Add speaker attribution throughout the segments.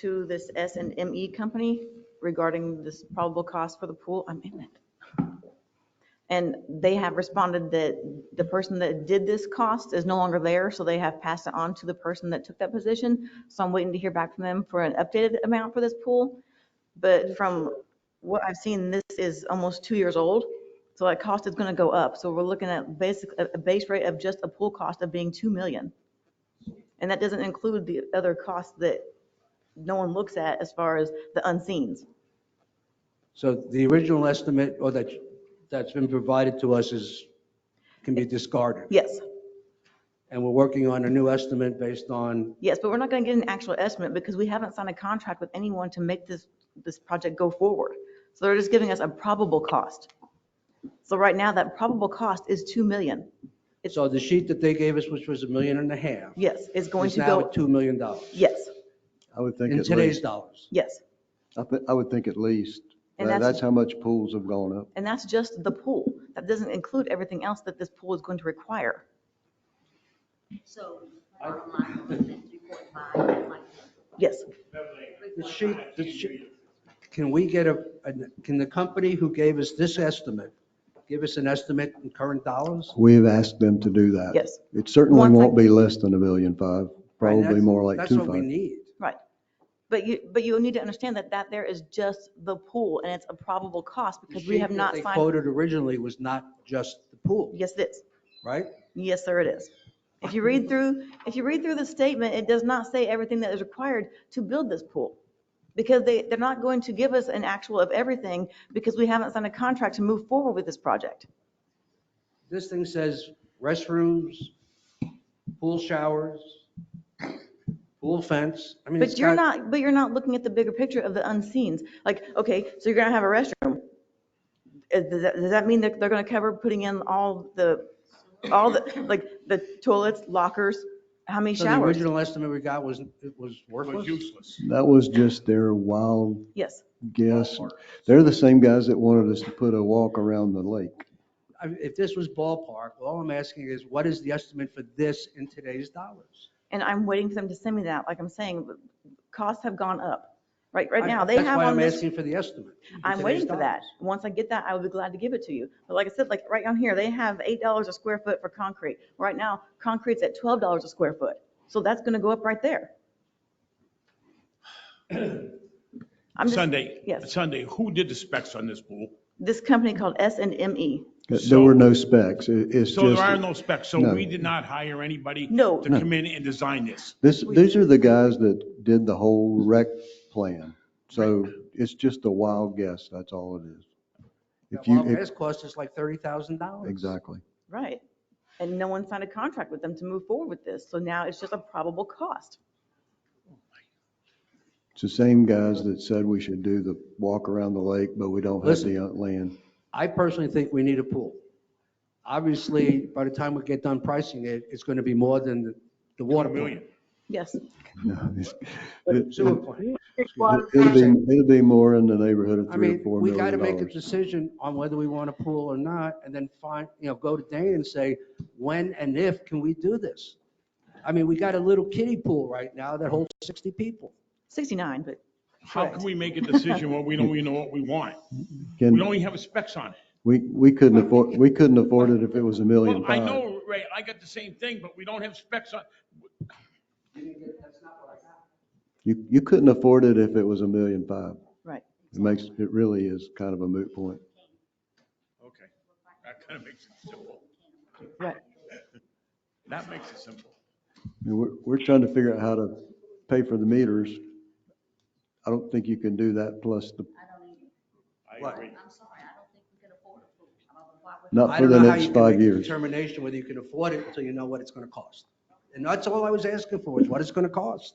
Speaker 1: to this S and M E company regarding this probable cost for the pool. I'm in it. And they have responded that the person that did this cost is no longer there, so they have passed it on to the person that took that position. So I'm waiting to hear back from them for an updated amount for this pool. But from what I've seen, this is almost two years old, so that cost is going to go up. So we're looking at basic, a a base rate of just a pool cost of being 2 million. And that doesn't include the other costs that no one looks at as far as the unseens.
Speaker 2: So the original estimate, or that, that's been provided to us is, can be discarded.
Speaker 1: Yes,
Speaker 2: And we're working on a new estimate based on,
Speaker 1: yes, but we're not going to get an actual estimate because we haven't signed a contract with anyone to make this, this project go forward. So they're just giving us a probable cost. So right now, that probable cost is 2 million.
Speaker 2: so the sheet that they gave us, which was a million and a half,
Speaker 1: Yes, it's going
Speaker 2: is
Speaker 1: to
Speaker 2: now
Speaker 1: go,
Speaker 2: at $2 million dollars,
Speaker 1: yes,
Speaker 3: I would think
Speaker 2: in
Speaker 3: at
Speaker 2: today's
Speaker 3: least,
Speaker 2: dollars.
Speaker 1: yes.
Speaker 3: I thi- I would think at least.
Speaker 1: And
Speaker 3: That-
Speaker 1: that's-
Speaker 3: That's how much pools have gone up.
Speaker 1: And that's just the pool. That doesn't include everything else that this pool is going to require.
Speaker 4: So, bottom line, we're looking at three point five, like,
Speaker 1: Yes,
Speaker 2: The sheet, the sheet, can we get a, an- can the company who gave us this estimate, give us an estimate in current dollars?
Speaker 3: We have asked them to do that.
Speaker 1: Yes.
Speaker 3: It certainly
Speaker 1: Once I-
Speaker 3: won't be less than a million five,
Speaker 2: Right,
Speaker 3: probably
Speaker 2: that's-
Speaker 3: more like
Speaker 2: That's
Speaker 3: two
Speaker 2: what we
Speaker 3: five.
Speaker 2: need.
Speaker 1: right. But you, but you need to understand that that there is just the pool and it's a probable cost
Speaker 2: The
Speaker 1: because we have
Speaker 2: sheet that
Speaker 1: not
Speaker 2: They
Speaker 1: signed.
Speaker 2: quoted originally was not just the pool,
Speaker 1: Yes, it is.
Speaker 2: right?
Speaker 1: Yes, sir, it is. If you read through, if you read through the statement, it does not say everything that is required to build this pool. Because they, they're not going to give us an actual of everything because we haven't signed a contract to move forward with this project.
Speaker 2: This thing says restrooms, pool showers, pool fence. I mean, it's
Speaker 1: But you're
Speaker 2: got-
Speaker 1: not, but you're not looking at the bigger picture of the unseens. Like, okay, so you're gonna have a restroom. Uh, Does that, does that mean that they're gonna cover putting in all the, all the, like, the toilets, lockers, how many
Speaker 2: So the
Speaker 1: showers?
Speaker 2: original estimate we got was, it was worthless?
Speaker 5: was useless.
Speaker 3: That was just their wild
Speaker 1: Yes,
Speaker 3: guess. They're the same guys that wanted us to put a walk around the lake.
Speaker 2: I mean, If this was ballpark, all I'm asking is what is the estimate for this in today's dollars?
Speaker 1: and I'm waiting for them to send me that, like I'm saying, but costs have gone up. Right, right
Speaker 2: I-
Speaker 1: now, they have
Speaker 2: That's why
Speaker 1: on
Speaker 2: I'm
Speaker 1: this,
Speaker 2: asking for the estimate. in
Speaker 1: I'm
Speaker 2: today's
Speaker 1: waiting for that.
Speaker 2: dollars.
Speaker 1: Once I get that, I will be glad to give it to you. But like I said, like right down here, they have eight dollars a square foot for concrete. Right now, concrete's at twelve dollars a square foot, so that's gonna go up right there. I'm just,
Speaker 5: Sunday,
Speaker 1: yes.
Speaker 5: Sunday, who did the specs on this pool?
Speaker 1: this company called S and M E.
Speaker 3: There
Speaker 5: So-
Speaker 3: were no specs. It- It's
Speaker 5: So there are
Speaker 3: just,
Speaker 5: no specs, so
Speaker 3: No.
Speaker 5: we did not hire anybody
Speaker 1: No.
Speaker 5: to come in and design this.
Speaker 3: this, these are the guys that did the whole rec plan. So it's just a wild guess. That's all it is. If
Speaker 2: That
Speaker 3: you,
Speaker 2: wild
Speaker 3: if-
Speaker 2: guess cost us like $30,000.
Speaker 3: exactly.
Speaker 1: Right. And no one signed a contract with them to move forward with this, so now it's just a probable cost.
Speaker 3: It's the same guys that said we should do the walk around the lake, but we don't have
Speaker 2: Listen.
Speaker 3: the uh, land.
Speaker 2: I personally think we need a pool. Obviously, by the time we get done pricing it, it's going to be more than the- the water plant.
Speaker 5: Million.
Speaker 1: Yes,
Speaker 3: No, it's- it-
Speaker 2: Sewer
Speaker 3: it-
Speaker 2: plant.
Speaker 3: It'll be, it'll be more in the neighborhood of
Speaker 2: I
Speaker 3: three or
Speaker 2: mean,
Speaker 3: four
Speaker 2: we got to
Speaker 3: million
Speaker 2: make a
Speaker 3: dollars.
Speaker 2: decision on whether we want a pool or not, and then find, you know, go to Dane and say, when and if can we do this? I mean, we got a little kiddie pool right now that holds 60 people.
Speaker 1: sixty-nine, but
Speaker 5: How can we make a decision when we don't even know what we want? We
Speaker 3: Can,
Speaker 5: don't even have a specs on it.
Speaker 3: we, we couldn't afford, we couldn't afford it if it was a million
Speaker 5: Well, I
Speaker 3: five.
Speaker 5: know, Ray, I got the same thing, but we don't have specs on,
Speaker 3: You, you couldn't afford it if it was a million five.
Speaker 1: Right.
Speaker 3: It makes, it really is kind of a moot point.
Speaker 5: okay. That kind of makes it simple.
Speaker 1: Right.
Speaker 5: That makes it simple.
Speaker 3: I mean, We're, we're trying to figure out how to pay for the meters. I don't think you can do that plus the,
Speaker 4: I don't even,
Speaker 5: I
Speaker 2: What?
Speaker 5: agree.
Speaker 4: I'm sorry, I don't think we can afford a pool. I'm not- why would-
Speaker 3: not
Speaker 2: I
Speaker 3: for
Speaker 2: don't
Speaker 3: the
Speaker 2: know how
Speaker 3: next
Speaker 2: you can
Speaker 3: five
Speaker 2: make a
Speaker 3: years.
Speaker 2: determination whether you can afford it until you know what it's going to cost. And that's all I was asking for, is what it's going to cost.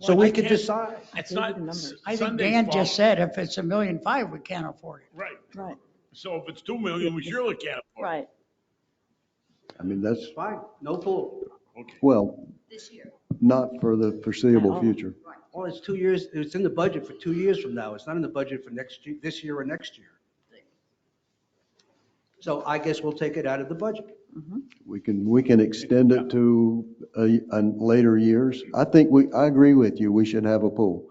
Speaker 2: So
Speaker 5: Well,
Speaker 2: we
Speaker 5: I
Speaker 2: could
Speaker 5: can't-
Speaker 2: decide.
Speaker 5: It's
Speaker 1: I
Speaker 5: not.
Speaker 1: believe the numbers.
Speaker 6: I think
Speaker 5: Sunday's
Speaker 6: Dan
Speaker 5: fault.
Speaker 6: just said if it's a million five, we can't afford it.
Speaker 5: Right.
Speaker 1: right,
Speaker 5: So if it's 2 million, we surely can't afford
Speaker 1: right.
Speaker 3: I mean, that's,
Speaker 2: Fine, no pool.
Speaker 5: it. Okay.
Speaker 3: well,
Speaker 4: This year,
Speaker 3: not for the foreseeable
Speaker 1: Oh.
Speaker 3: future.
Speaker 2: Well, it's two years, it's in the budget for two years from now. It's not in the budget for next, year, this year or next year. So I guess we'll take it out of the budget.
Speaker 3: We can, we can extend it to a, a later years. I think we, I agree with you, we should have a pool.